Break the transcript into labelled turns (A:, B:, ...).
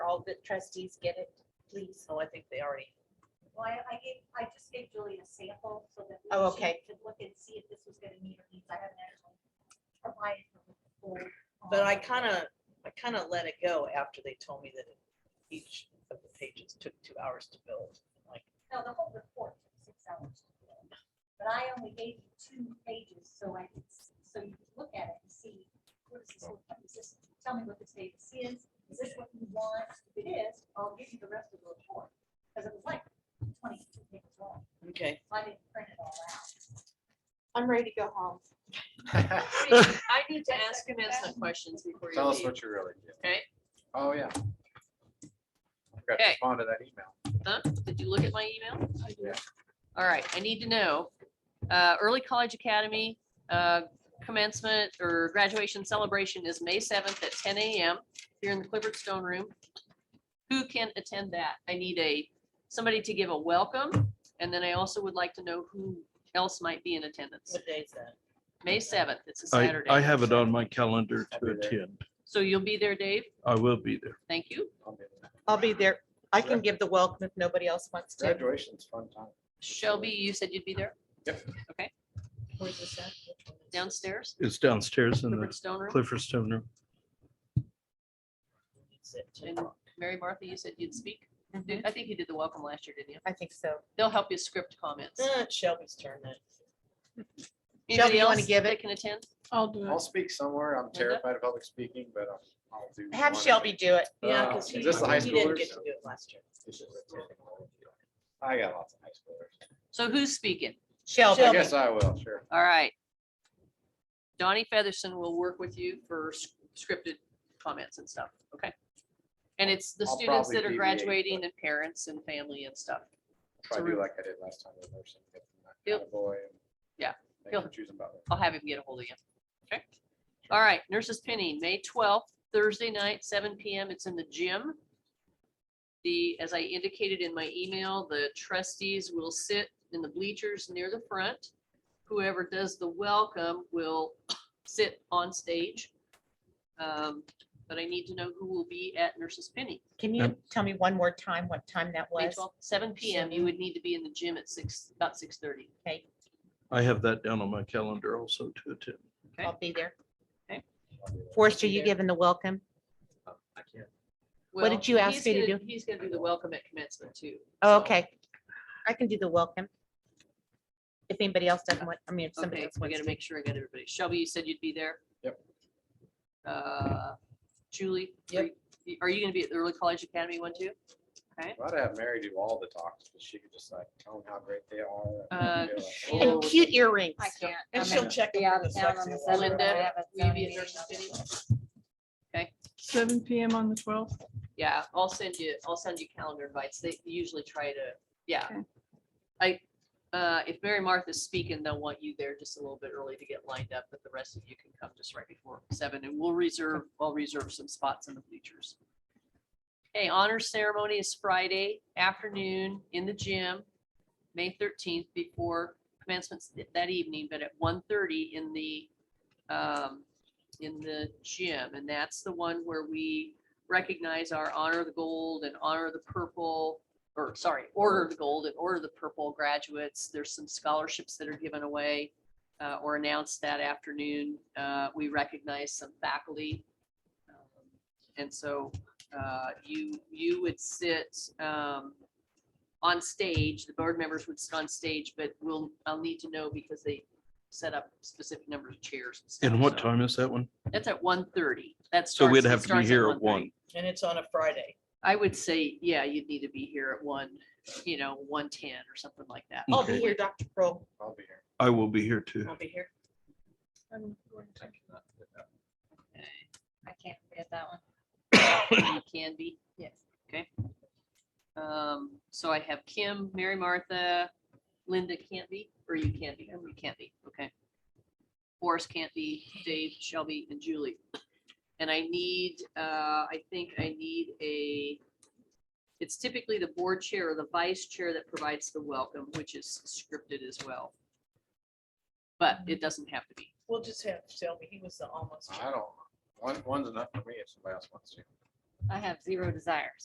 A: all the trustees get it, please?
B: Oh, I think they already,
C: Well, I, I gave, I just gave Julie a sample so that. we-
A: Oh,
C: she
A: okay.
C: Could look and see if this was gonna meet her needs. I haven't actually provided her with the full.
B: but
C: um,
B: I kind of, I kind of let it go after they told me that each of the pages took two hours to build. Like,
C: No, the whole report took six hours. to do. But I only gave you two pages, so I could, s- so you could look at it and see, what is this, look like? Is this- tell me what this data is, is this what you want? If it is, I'll give you the rest of the report, because it was like twenty-two pages long,
B: okay,
C: so I didn't print it all out.
A: I'm ready to go home.
D: I need to ask him and some questions before you
E: Tell us
D: leave.
E: what you really did.
D: Okay.
E: Oh, yeah. Got to
D: Okay.
E: respond to that email.
D: Huh? Did you look at my email?
E: Yeah.
D: All right, I need to know, uh, early college academy, uh, commencement or graduation celebration is May seventh at ten AM here in the Clifford Stone Room. Who can attend that? I need a, somebody to give a welcome, and then I also would like to know who else might be in attendance.
B: what day is that?
D: May seventh, it's a
F: I,
D: Saturday.
F: I have it on my calendar
E: I'll
F: to
E: be there.
F: attend.
D: So you'll be there, Dave?
F: I will be there.
D: Thank you.
E: I'll be there.
A: I'll be there. I can give the welcome if nobody else wants to.
E: Graduation's fun time.
D: Shelby, you said you'd be there
B: Where's this at? Which one is it?
D: downstairs,
F: It's downstairs in
D: Clifford
F: the
D: Stone Room.
F: Clifford Stone Room.
B: It's at two
D: And
B: o'clock.
D: Mary Martha, you said you'd speak.
A: Mhm.
D: I think you did the welcome last year, didn't you?
A: I think so.
D: They'll help you script comments.
B: Uh, it's Shelby's turn then.
D: Anybody
A: Mm-hmm. you wanna
D: else
A: give
D: that
A: it?
D: Can attend?
A: I'll do
E: I'll speak somewhere. I'm
D: Mm-hmm. Linda?
E: terrified of public speaking, but I'll- I'll do.
A: Have
E: one.
A: Shelby do it.
B: Yeah,
E: Uh,
B: because he
E: is this the high
B: he didn't get
E: schoolers?
B: to do it last year.
E: I got lots of high schoolers.
D: So who's speaking?
E: I
A: Shelby.
E: guess I will, sure.
D: All right. Donnie Featherston will work with you for s- scripted comments and stuff, okay? And it's the
E: I'll
D: students
E: probably
D: that are
E: deviate,
D: graduating
E: but-
D: and parents and family and stuff.
E: Try
D: So
E: to do
D: we-
E: like I did last time. with nursing, get
D: Yep.
E: them that Boy. and
D: Yeah.
E: make
D: Yep.
E: them Choose them about it.
D: I'll have him get a hold of you. Okay? All right, Nurses Penny, May twelfth, Thursday night, seven PM. It's in the gym. The, as I indicated in my email, the trustees will sit in the bleachers near the front. Whoever does the welcome will sit on stage. Um, But I need to know who will be at Nurses Penny.
A: Can you tell me one more time what time that
D: May
A: was?
D: 12th, seven PM. You would need to be in the gym at six, about six thirty.
A: Okay,
F: I have that down on my calendar also to attend.
D: Okay.
A: I'll be there.
D: Okay.
A: Forrester, you
B: there.
A: giving the welcome? What did you ask me to do?
D: He's gonna do the welcome at commencement too.
A: Oh,
D: so-
A: Okay. I can do the welcome. If anybody else doesn't want, I mean, if somebody
D: Okay,
A: else
D: we
A: wants
D: gotta
A: to.
D: make sure I got everybody. Shelby, you said you'd be there?
E: Yep.
D: Uh, Julie?
B: Yep.
D: are you- Are you gonna be at the Early College Academy one too?
E: Glad to have Mary do all the talks, but she could just like tell them how great they are.
D: Uh,
E: and be like,
D: she-
E: "Oh,
A: And cute earrings.
C: I can't.
B: And
C: I'm
B: she'll
C: in-
B: check
C: be
B: them
C: out
B: for
C: of
B: the
C: town
B: sexy
C: on the
B: alarm.
C: seventh, but I
D: Linda,
C: have a
D: will
C: Zoom
D: you be at
C: meeting
D: Nurses
C: on the
D: City?
C: 12th.
G: Seven PM on the twelfth.
D: Yeah, I'll send you, I'll send you calendar invites. They usually try to, yeah.
G: Okay.
D: I, uh, if Mary Martha's speaking, they'll want you there just a little bit early to get lined up, but the rest of you can come just right before seven and we'll reserve, I'll reserve some spots in the bleachers. Okay, honors ceremony is Friday afternoon in the gym, May thirteenth before commencement's th- that evening, but at 1:30 in the, um, in the gym. And that's the one where we recognize our honor the gold and honor the purple, or sorry, order the gold and order the purple graduates. There's some scholarships that are given away uh, or announced that afternoon. Uh, We recognize some faculty. Um, And so uh, you, you would sit um, on stage, the board members would sit on stage, but we'll, I'll need to know because they set up specific number of chairs. stuff,
F: And what
D: so-
F: time is that one?
D: That's at 1:30. That's.
F: So we'd have to be here at one.
B: And it's on a Friday.
D: I would say, yeah, you'd need to be here at one, you know, one ten or something like that.
B: I'll be
F: Okay.
B: here, Dr. Pro.
E: I'll be here.
F: I will be here too.
B: I'll be here.
C: I can't forget that one.
D: You Can be.
C: Yes.
D: Okay. Um, so I have Kim, Mary Martha, Linda can't be, or you can't be, you can't be, okay. Forrest can't be, Dave, Shelby, and Julie. And I need, uh, I think I need a, it's typically the board chair or the vice chair that provides the welcome, which is scripted as well. But it
C: Mm-hmm.
D: doesn't have to be.
B: We'll just have Shelby. He was the almost.
E: I don't, one, one's enough for me if somebody else wants to.
C: I have zero desires.